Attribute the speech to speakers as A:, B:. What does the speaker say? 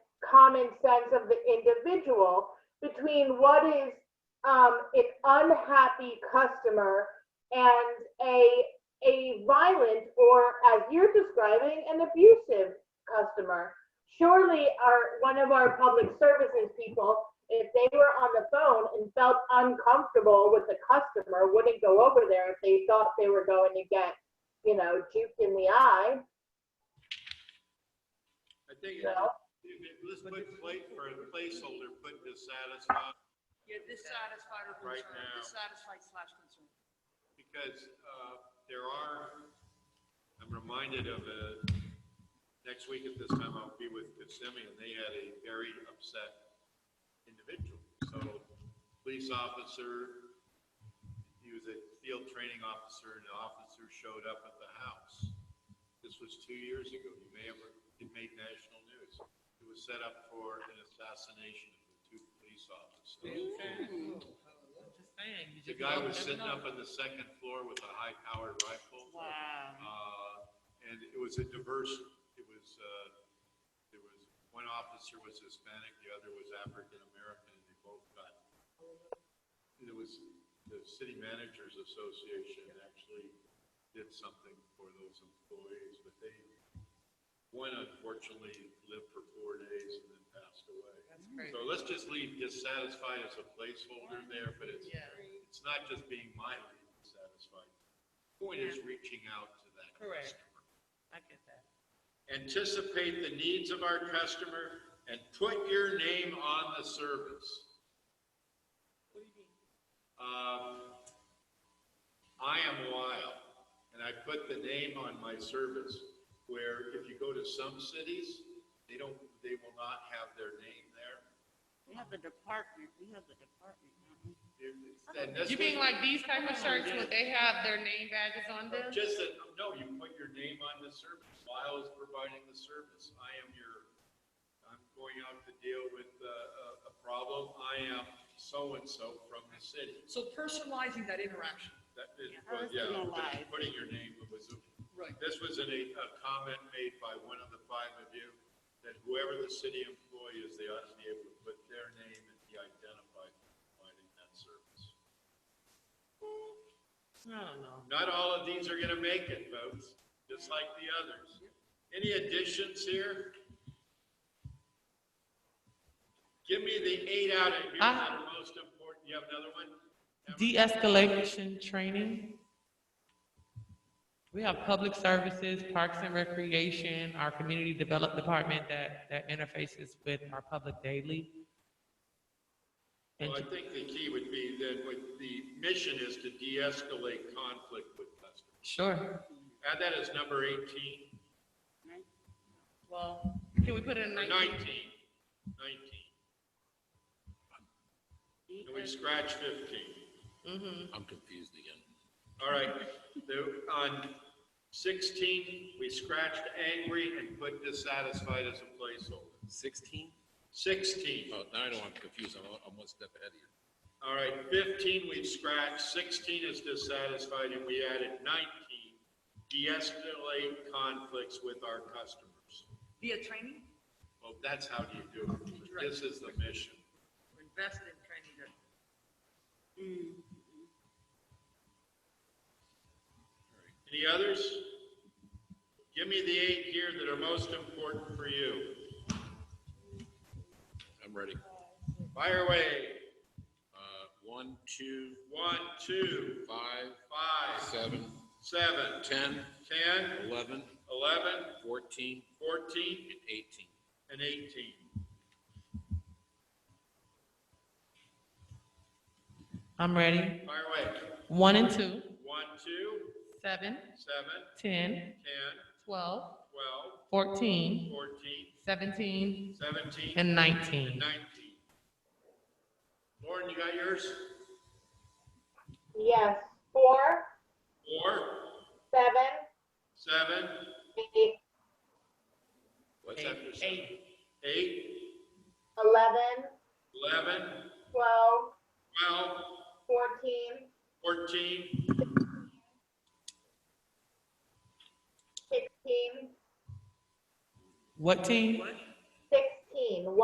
A: common sense of the individual between what is um, an unhappy customer and a a violent or as you're describing an abusive customer surely our one of our public services people if they were on the phone and felt uncomfortable with the customer wouldn't go over there if they thought they were going to get you know juked in the eye
B: I think,
A: you know
B: let's put, wait for a placeholder, put dissatisfied,
C: Yeah, dissatisfied or
B: Right
C: concerned,
B: now.
C: dissatisfied slash concerned.
B: because, uh, there are, I'm reminded of, uh, next week at this time, I'll be with Kissimmee, and they had a very upset individual. So, police officer, he was a field training officer, and the officer showed up at the house. This was two years ago. You may have, it made national news. It was set up for an assassination of the two police officers. The guy was sitting up on the second floor with a high-powered rifle.
C: Wow.
B: Uh, And it was a diverse, it was, uh, there was, one officer was Hispanic, the other was African-American, and they both got. And it was, the City Managers Association actually did something for those employees, but they, one unfortunately lived for four days and then passed away. So let's just leave dissatisfied as a placeholder there, but it's,
C: Yeah.
B: it's not just being mildly dissatisfied. Point is reaching out to that
C: Correct.
B: customer.
C: I get that.
B: Anticipate the needs of our customer and put your name on the service. Um, I am wild, and I put the name on my service, where if you go to some cities, they don't, they will not have their name there.
D: We have the department, we have the department. don't we?
B: It's- and that's
E: You mean like
B: what-
E: these type of shirts, would they have their name badges on them?
B: Just that, no, you put your name on the service, Lyle is providing the service, I am your, I'm going out to deal with uh, a, a problem, I am so-and-so from the city.
C: So personalizing that interaction.
B: That is,
D: Yeah,
B: well,
D: that's
B: yeah,
D: no
B: but
D: lie.
B: putting your name, it was,
C: Right.
B: this was in a, a comment made by one of the five of you, that whoever the city employee is, they ought to be able to put their name and be identified for providing that service.
C: No, no.
B: Not all of these are gonna make it, folks, just like the others. Any additions here? Give me the eight out of here that are most important. You have another one?
F: De-escalation training. We have public services, parks and recreation, our community development department that, that interfaces with our public daily. And
B: Well, I think the key would be that what the mission is to de-escalate conflict with customers.
F: sure,
B: Add that as number eighteen,
E: Well, can we put it in
B: or
E: nineteen?
B: nineteen, nineteen. And we scratch fifteen.
G: I'm confused again.
B: All right, the, on sixteen, we scratched angry and put dissatisfied as a placeholder.
G: Sixteen?
B: Sixteen,
G: Oh, now I know I'm confused. I'm, I'm one step ahead of you.
B: all right, fifteen we've scratched, sixteen is dissatisfied, and we added nineteen, de-escalate conflicts with our customers.
C: Via training,
B: Well, that's how you do it, this is the mission.
C: invest in training. that- Mm.
B: Any others? Give me the eight here that are most important for you.
G: I'm ready.
B: Fire away,
G: Uh, one, two,
B: one, two,
G: five,
B: five,
G: seven,
B: seven,
G: ten,
B: ten,
G: eleven,
B: 11,
G: fourteen,
B: 14,
G: and eighteen.
B: and 18.
F: I'm ready.
B: Fire away.
F: One and
B: 1,
F: two,
B: 2, 7,
F: seven, ten,
B: 10,
F: twelve,
B: 12,
F: fourteen,
B: 14,
F: seventeen,
B: 17, and
F: and nineteen.
B: 19. Lauren, you got yours?
A: yes four
B: 4,
A: seven
B: 7,
A: eight
B: what's after 7? 8,
A: 11
B: 11,
A: 12
B: 12,
A: 14
B: 14,
A: 16
F: What team?
A: 16